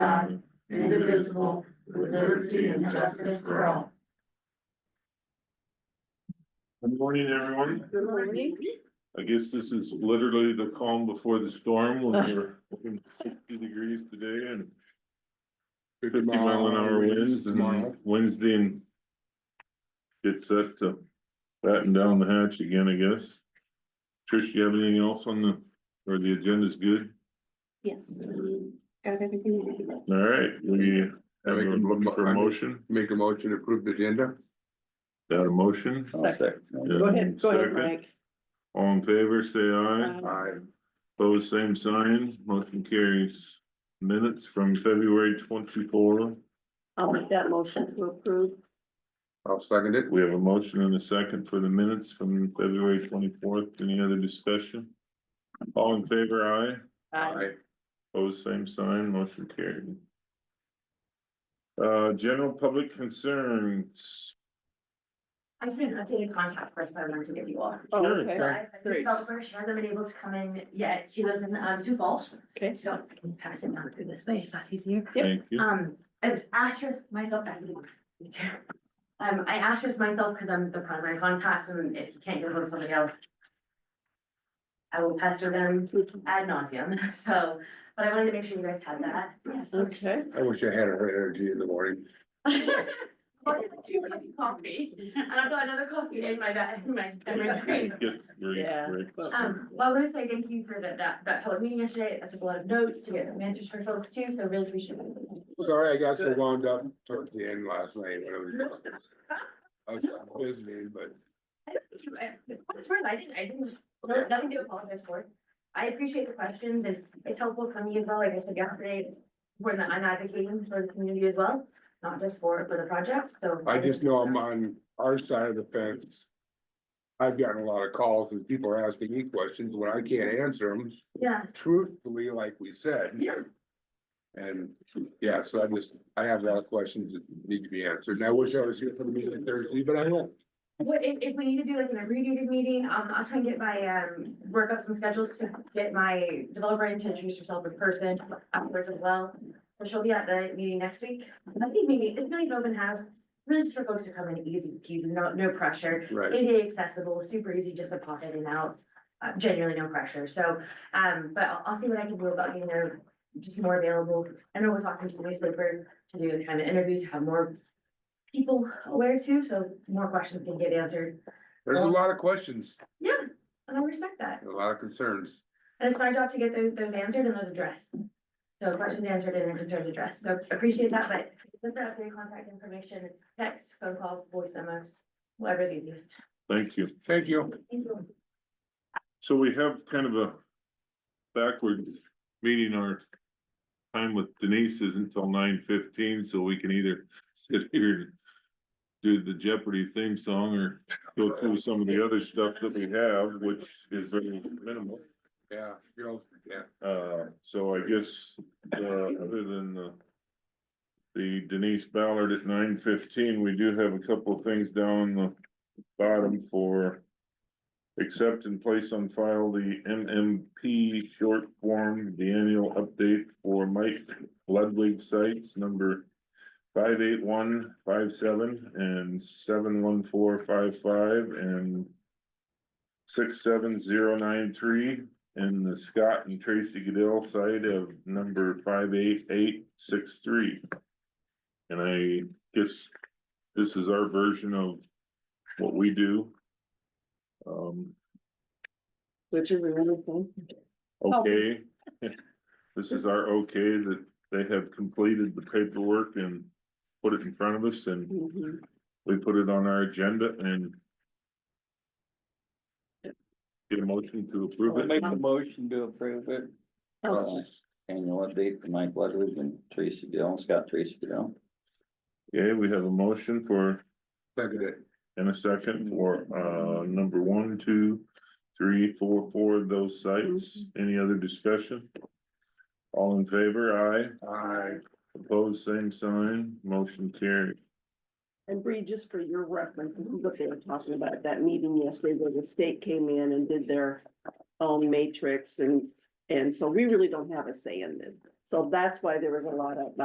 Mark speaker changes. Speaker 1: God, indivisible, with liberty and justice for all.
Speaker 2: Good morning, everyone.
Speaker 1: Good morning.
Speaker 2: I guess this is literally the calm before the storm when you're looking at sixty degrees today and fifty mile an hour winds and Wednesday and get set to batten down the hatch again, I guess. Trish, you have anything else on the, or the agenda's good?
Speaker 1: Yes. Got everything.
Speaker 2: All right, we have a looking for a motion,
Speaker 3: Make a motion to approve the agenda?
Speaker 2: that a motion?
Speaker 1: Go ahead, go ahead,
Speaker 2: Second.
Speaker 1: Mike.
Speaker 2: All in favor, say aye.
Speaker 3: Aye.
Speaker 2: Pose same sign, motion carries. Minutes from February twenty-four.
Speaker 1: I'll make that motion to approve.
Speaker 3: I'll second it.
Speaker 2: We have a motion and a second for the minutes from February twenty-fourth. Any other discussion? All in favor, aye.
Speaker 3: Aye.
Speaker 2: Pose same sign, motion carried. Uh, general public concerns.
Speaker 4: I just didn't update a contact first, I wanted to give you all.
Speaker 1: Oh,
Speaker 2: Sure,
Speaker 1: okay,
Speaker 2: sure.
Speaker 4: But the developer, she hasn't been able to come in yet, she lives in um Sioux Falls,
Speaker 1: okay.
Speaker 4: so I can pass it down through this way, if that's easier.
Speaker 1: Yep.
Speaker 2: Thank you.
Speaker 4: Um, I was asterisk myself, I didn't. me too. Um, I asterisk myself because I'm the primary contact and if you can't get hold of somebody else. I will pester them ad nauseum, so, but I wanted to make sure you guys had that. Yes.
Speaker 1: Okay,
Speaker 3: I wish I had her energy in the morning.
Speaker 4: What is two cups of coffee? And I've got another coffee in my bag, in my, in my drink.
Speaker 2: Get ready,
Speaker 1: Yeah.
Speaker 2: ready.
Speaker 1: well,
Speaker 4: Um, well, I want to say thank you for that, that, that public meeting yesterday. I took a lot of notes to get some answers for folks too, so really appreciate it.
Speaker 3: Sorry, I got so wound up towards the end last night when I was. I was busy, but
Speaker 4: It's worth, I didn't, I didn't, no, nothing to apologize for. I appreciate the questions and it's helpful for me as well. Like I said yesterday, it's important that I'm advocating for the community as well, not just for, for the project, so.
Speaker 3: I just know I'm on our side of the fence. I've gotten a lot of calls and people are asking me questions when I can't answer them
Speaker 4: Yeah,
Speaker 3: truthfully, like we said.
Speaker 4: yeah.
Speaker 3: And, yeah, so I just, I have a lot of questions that need to be answered, and I wish I was here for the meeting Thursday, but I won't.
Speaker 4: What, if, if we need to do like an abbreviated meeting, um, I'll try and get my, um, work up some schedules to get my developer in to introduce herself in person afterwards as well. So she'll be at the meeting next week. I think maybe, it's not even open house, really just for folks to come in easy peasy, no, no pressure.
Speaker 3: Right.
Speaker 4: ADA accessible, super easy, just to pop in and out, uh, genuinely no pressure. So, um, but I'll, I'll see what I can do about getting there, just more available. I know we're talking to the newspaper to do kind of interviews, have more people aware too, so more questions can get answered.
Speaker 3: There's a lot of questions,
Speaker 4: Yeah, and I respect that.
Speaker 3: and a lot of concerns.
Speaker 4: And it's my job to get those, those answered and those addressed. So questions answered and concerns addressed. So appreciate that, but let's not update contact information, text, phone calls, voice memos, whatever's easiest.
Speaker 2: Thank you.
Speaker 3: Thank you.
Speaker 4: Thank you.
Speaker 2: So we have kind of a backward meeting, our time with Denise isn't till nine fifteen, so we can either sit here and do the Jeopardy theme song or go through some of the other stuff that we have, which is very minimal.
Speaker 3: Yeah, girls, yeah.
Speaker 2: Uh, so I guess, uh, other than the the Denise Ballard at nine fifteen, we do have a couple of things down the bottom for accept and place on file the MMP short form, the annual update for Mike Ludwig sites number five eight one five seven and seven one four five five and six seven zero nine three and the Scott and Tracy Goodell side of number five eight eight six three. And I guess this is our version of what we do. Um,
Speaker 1: which is another thing.
Speaker 2: okay. This is our okay that they have completed the paperwork and put it in front of us and
Speaker 1: Mhm.
Speaker 2: we put it on our agenda and get a motion to approve
Speaker 5: I'll
Speaker 2: it.
Speaker 5: make the motion to approve it.
Speaker 1: I'll-
Speaker 5: Uh, Annual update for Mike Ludwig and Tracy Gill, Scott Tracy Gill.
Speaker 2: Okay, we have a motion for
Speaker 3: Second it.
Speaker 2: And a second for uh number one, two, three, four, four of those sites. Any other discussion? All in favor, aye.
Speaker 3: Aye.
Speaker 2: Opposed, same sign, motion carried.
Speaker 1: And Bree, just for your reference, this is what they were talking about at that meeting yesterday, where the state came in and did their own matrix and, and so we really don't have a say in this. So that's why there was a lot of